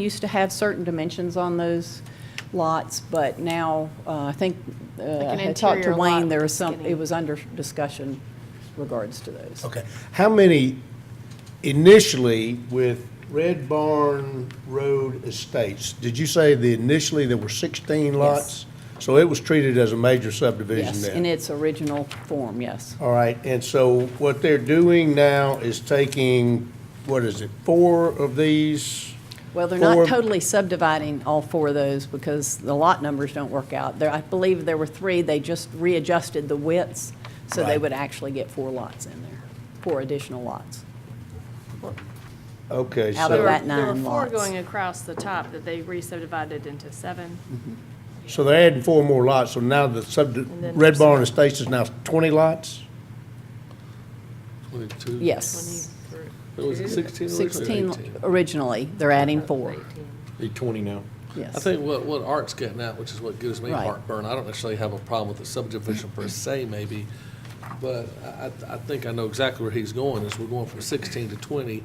Used to have certain dimensions on those lots, but now, uh, I think, uh, an I talked to interior lot Wayne, with there a was some, skinny- it was under discussion regards to those. Oh, Okay, how many initially with Red Barn Road Estates? Did you say the initially there were 16 lots? So it was treated as a major subdivision Yes, then? in its original form, yes. All right, and so what they're doing now is taking, what is it, four of these? Well, they're not Four- totally subdividing all four of those because the lot numbers don't work out. There, I believe there were three, they just readjusted the widths, so they Right. would actually get four lots in there, four additional lots. Okay, Out of There were- so, that nine There were four lots. going across the top that they re-subdivided into seven. so they're adding four more lots, so now the sub, then Red there's- Barn Estates is now 20 lots? 22. Yes, What Was it 16 originally? 16 originally, they're adding four. Eight twenty now. Yes. I think what, what Art's getting at, which is what gives me Right. heartburn, I don't necessarily have a problem with the subdivision per se maybe, but I, I I think I know exactly where he's going, is we're going from sixteen to twenty,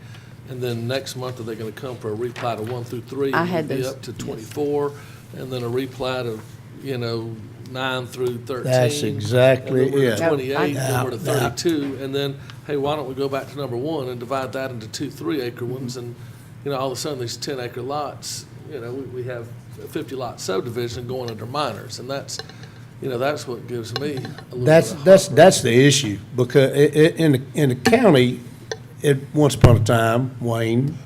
and then next month are they gonna come for a replat of one through three? I and had be those, Up to yes. twenty-four, and then a replat of, you know, nine through thirteen. That's exactly and then we're to it. Twenty-eight, then we're to Yeah, yeah. thirty-two, and then, hey, why don't we go back to number one and divide that into two three-acre ones? Mm-hmm. And, you know, all of a sudden, these ten-acre lots, you know, we, we have a fifty-lot subdivision going under minors, and that's, you know, that's what gives me a little bit of That's, that's, that's the issue, because i- i- in, the- in the county, it, once upon a time, Wayne,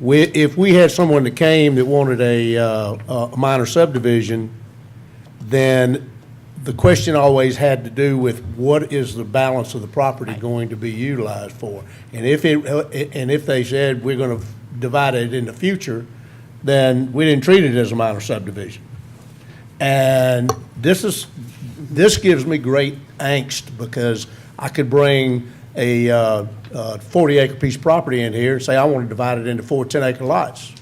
we, if we had someone that came that wanted a, uh, a minor subdivision, then the question always had to do with what is the balance of the property going to be utilized for? And if it, uh, and if they said, we're gonna divide it in the future, then we didn't treat it as a minor subdivision. And this is, this gives me great angst because I could bring a uh, uh, 40 acre piece of property in here and say, I want to divide it into four 10 acre lots.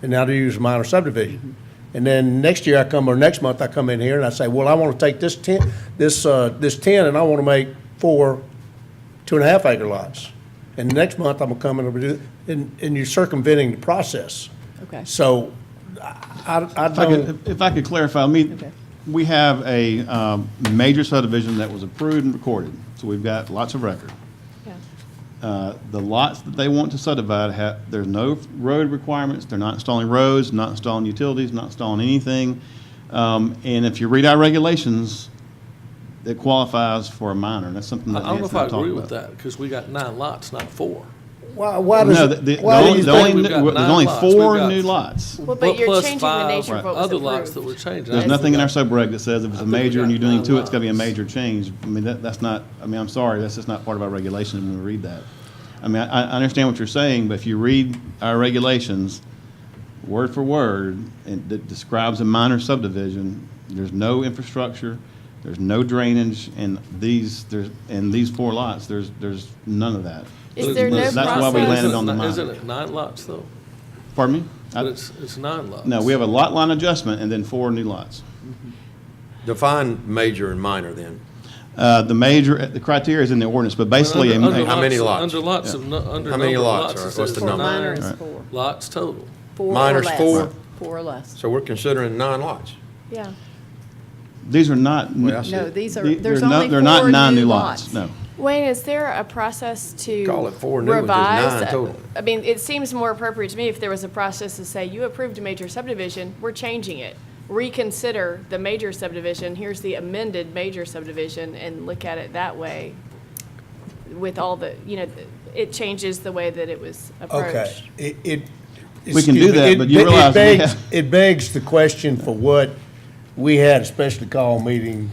And now to use a minor subdivision. And then next year I come, or next month I come in here and I say, well, I want to take this 10, this, uh, this 10 and I want to make four two and a half acre lots. And next month I'm going to come in and do, and, and you're circumventing the process. Okay. So I, I I If I don't. could, if I could clarify, I mean, Okay. we have a um, major subdivision that was approved and recorded, so we've got lots of record. Yeah. Uh, The lots that they want to subdivide have, there's no road requirements, they're not installing roads, not installing utilities, not installing anything. Um, And if you read our regulations, it qualifies for a minor, and that's something I that I don't know Nancy if and I I talked agree with about. that, because we got nine lots, not four. Why, why No, the- does, the- it- the why do only, you the think only, we've there's got nine only lots? four We've got- new lots. Well, Well, but you're plus changing the five nature of what was Other lots that we're approved. changing. There's I nothing in our think we got- subregs that says if I it's a think we major got and you're doing nine two, it's gotta be a lots. major change. I mean, that, that's not, I mean, I'm sorry, that's just not part of our regulation when we read that. I mean, I, I understand what you're saying, but if you read our regulations, word for word, and that describes a minor subdivision, there's no infrastructure, there's no drainage, and these, there's, and these four lots, there's, there's none of that. Is there no That's why we process- landed on the Isn't it- Isn't minor. it nine lots, though? Pardon me? But I- it's, it's nine lots. No, we have a lot line adjustment and then four new lots. Define major and minor then. Uh, the major, the criteria is in the ordinance, but basically, a- Under- under How many lots? Under lots of, nu- under How many number of lots? lots. Or it what's says for the Four number? nine minor is Right. four. Lots total. Four or Minor's less. four. Four or less. So we're considering nine lots. Yeah. these are not. Well, I see. No, these are, the- there's they're not- only they're not four nine new lots. No. Wayne, is there a process to? Call it four new ones, there's nine revise? total. I mean, it seems more appropriate to me if there was a process to say, you approved a major subdivision, we're changing it. Reconsider the major subdivision, here's the amended major subdivision, and look at it that way with all the, you know, it changes the way that it was Okay, approached. it, it. We can do excuse me, that, it- but you it realize we begs- have- It begs the question for what, we had a special call meeting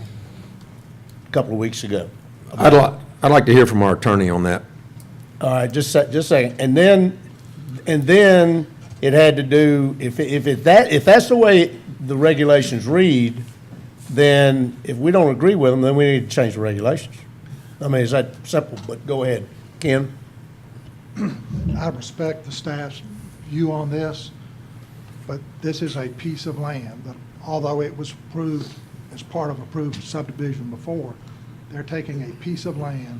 a couple of weeks ago. I'd like, I'd like to hear from our attorney on that. All right, just a, just a second. And then, and then it had to do, if, if it that, if that's the way the regulations read, then if we don't agree with them, then we need to change the regulations. I mean, it's that simple, but go ahead. Ken? I respect the staff's view on this, but this is a piece of land that although it was approved as part of approved subdivision before, they're taking a piece of land,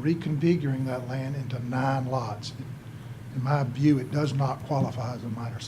reconfiguring that land into nine lots. In my view, it does not qualify as a minor